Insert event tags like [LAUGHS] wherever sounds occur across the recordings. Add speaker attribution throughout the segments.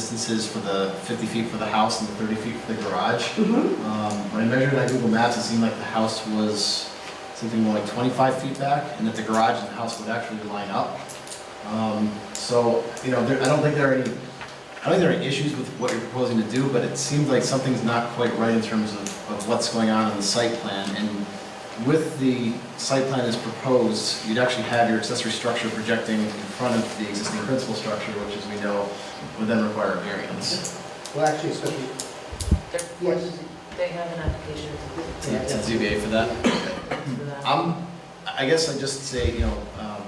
Speaker 1: distances for the 50 feet for the house and the 30 feet for the garage.
Speaker 2: Mhm.
Speaker 1: Um, When I measured it on Google Maps, it seemed like the house was something more like 25 feet back, and that the garage and the house would actually line up. Um, So, you know, there- I don't think there are any, I don't think there are issues with what you're proposing to do, but it seems like something's not quite right in terms of of what's going on in the site plan. And with the site plan as proposed, you'd actually have your accessory structure projecting in front of the existing principal structure, which, as we know, would then require a variance
Speaker 3: Well, actually, it's going to
Speaker 4: They're-
Speaker 3: Yes.
Speaker 4: They have an application
Speaker 1: to to ZBA for that.
Speaker 4: for that.
Speaker 1: I'm, I guess I just say, you know, um,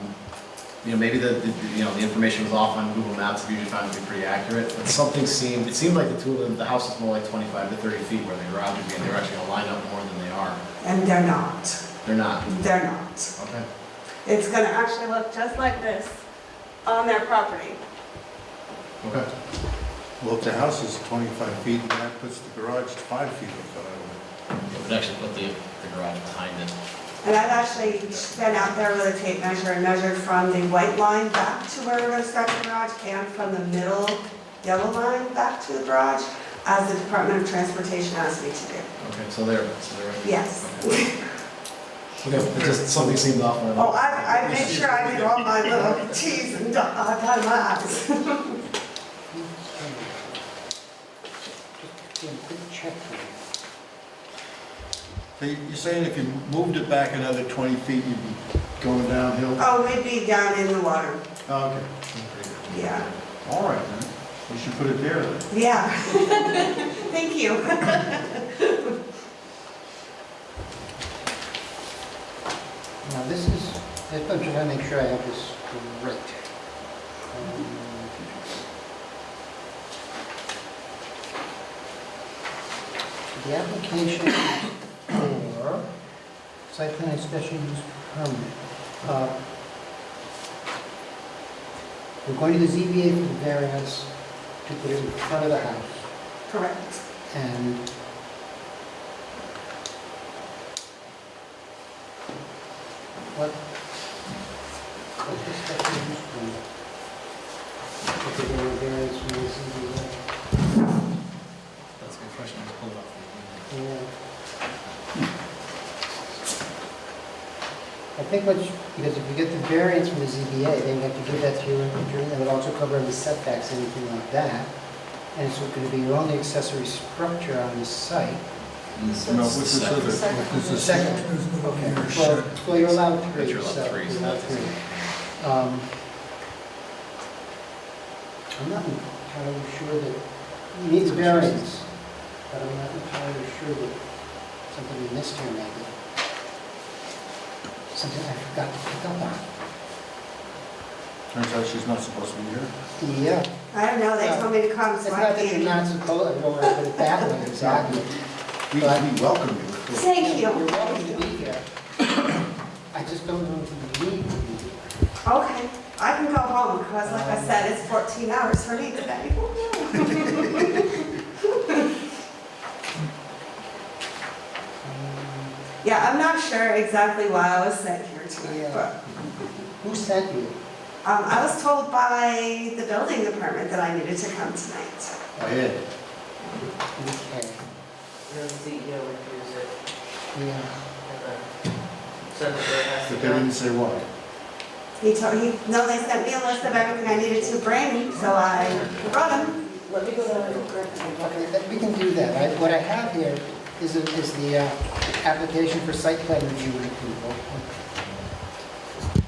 Speaker 1: you know, maybe the, the- you know, the information was off on Google Maps, we usually found it to be pretty accurate, but something seemed, it seemed like the two of them, the house was more like twenty-five to thirty feet where the garage would be, and they were actually gonna line up more than they are.
Speaker 2: And they're not,
Speaker 1: They're not.
Speaker 2: they're not.
Speaker 1: Okay.
Speaker 2: It's gonna actually look just like this on their property.
Speaker 1: Okay.
Speaker 5: Well, if the house is 25 feet, and that puts the garage five feet or
Speaker 1: It would actually put the, the garage behind it.
Speaker 2: And I've actually been out there with a tape measure and measured from the white line back to where we're gonna start the garage and from the middle yellow line back to the garage as the Department of Transportation asked me to do.
Speaker 1: Okay, so there, so there.
Speaker 2: Yes.
Speaker 1: Okay, Okay, it just, something seemed off. when
Speaker 2: Oh, I, I made sure I did all my little Ts and dots on my eyes.
Speaker 3: be a good check for you.
Speaker 5: So you- you're saying if you moved it back another 20 feet, you'd be going downhill?
Speaker 2: Oh, we'd be down in the water,
Speaker 5: Oh, Okay,
Speaker 2: yeah,
Speaker 5: all right then, we should put it there then.
Speaker 2: yeah. [LAUGHS] Thank you.
Speaker 3: Now, this is, I just want to make sure I have this correct. Um, The application is for site plan and special use permit. Uh, We're going to the ZBA for the variance to put it in front of the house.
Speaker 2: Correct.
Speaker 3: And what, what is that used for? If they're gonna variance from the CBA?
Speaker 1: That's a good question, I just pulled it off. the-
Speaker 3: Yeah. I think what, you- because if you get the variance from the ZBA, then you have to give that to your engineer, that would also cover any setbacks, anything like that. And it's going to be your only accessory structure on the site.
Speaker 1: Mm,
Speaker 5: No,
Speaker 1: it's
Speaker 5: what's
Speaker 1: the
Speaker 5: this other?
Speaker 1: second.
Speaker 5: what's
Speaker 3: The
Speaker 5: this-
Speaker 3: second, okay, well, well, you're allowed three,
Speaker 1: But
Speaker 3: so.
Speaker 1: you're allowed three, so
Speaker 3: you're allowed
Speaker 1: that doesn't-
Speaker 3: three. Um, I'm not entirely sure that, it needs variance, but I'm not entirely sure that something we missed here maybe. Something I forgot to pick up on.
Speaker 5: Turns out she's not supposed to be here.
Speaker 3: Yeah,
Speaker 2: I don't know, they told me to come,
Speaker 3: uh, it's
Speaker 2: so
Speaker 3: not
Speaker 2: I
Speaker 3: that you're
Speaker 2: came.
Speaker 3: not supposed, I don't want to put it that way exactly.
Speaker 5: We we welcome you.
Speaker 2: Thank you.
Speaker 3: You're welcome to be here. I just don't know if you need to be here.
Speaker 2: Okay, I can go home, because like I said, it's 14 hours for me today. [LAUGHS]
Speaker 3: Um,
Speaker 2: Yeah, I'm not sure exactly why I was sent here tonight, but
Speaker 3: Who sent you?
Speaker 2: um, I was told by the building department that I needed to come tonight.
Speaker 5: Ed,
Speaker 3: Okay,
Speaker 4: The CEO reviews it
Speaker 3: yeah.
Speaker 4: and then sends it to us.
Speaker 5: but they didn't say why.
Speaker 2: He told, he, no, they sent me a list of everything I needed to bring, so I brought them.
Speaker 4: Let me go down and correct
Speaker 3: Okay, that- we can do that. I- What I have here is, a- is the uh, application for site plan review and approval.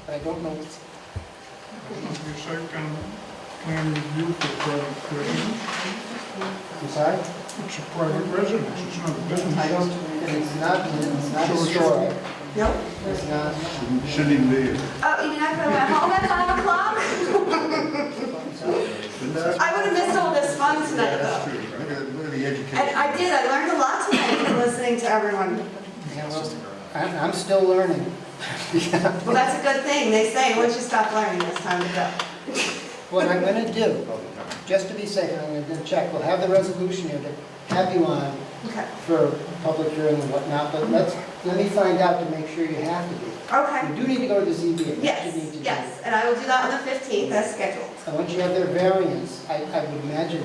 Speaker 3: But I don't know, what's-
Speaker 6: Your site plan, plan review for private residence,
Speaker 3: I'm sorry?
Speaker 6: it's a private residence, it's not a business.
Speaker 3: I don't, it's not, it's not a
Speaker 6: Sure,
Speaker 3: store.
Speaker 6: sure.
Speaker 2: Nope.
Speaker 3: It's not,
Speaker 5: Shouldn't even be here.
Speaker 2: Oh, you mean I could have went home at 5 o'clock? I would have missed all this fun tonight, though.
Speaker 5: Look at, look at the education.
Speaker 2: And I did, I learned a lot tonight from listening to everyone.
Speaker 3: you know,
Speaker 1: It's just a garage.
Speaker 3: I'm, I'm still learning. [LAUGHS]
Speaker 2: Well, that's a good thing, they say, once you stop learning, it's time to go.
Speaker 3: What I'm gonna do, just to be safe, and I'm gonna check, we'll have the resolution here to have you on
Speaker 2: Okay,
Speaker 3: for public hearing and whatnot, but let's, let me find out to make sure you have to be.
Speaker 2: okay.
Speaker 3: You do need to go to the ZBA. That's what you need
Speaker 2: Yes,
Speaker 3: to do.
Speaker 2: yes, and I will do that on the 15th as scheduled.
Speaker 3: And once you have their variance, I, I would imagine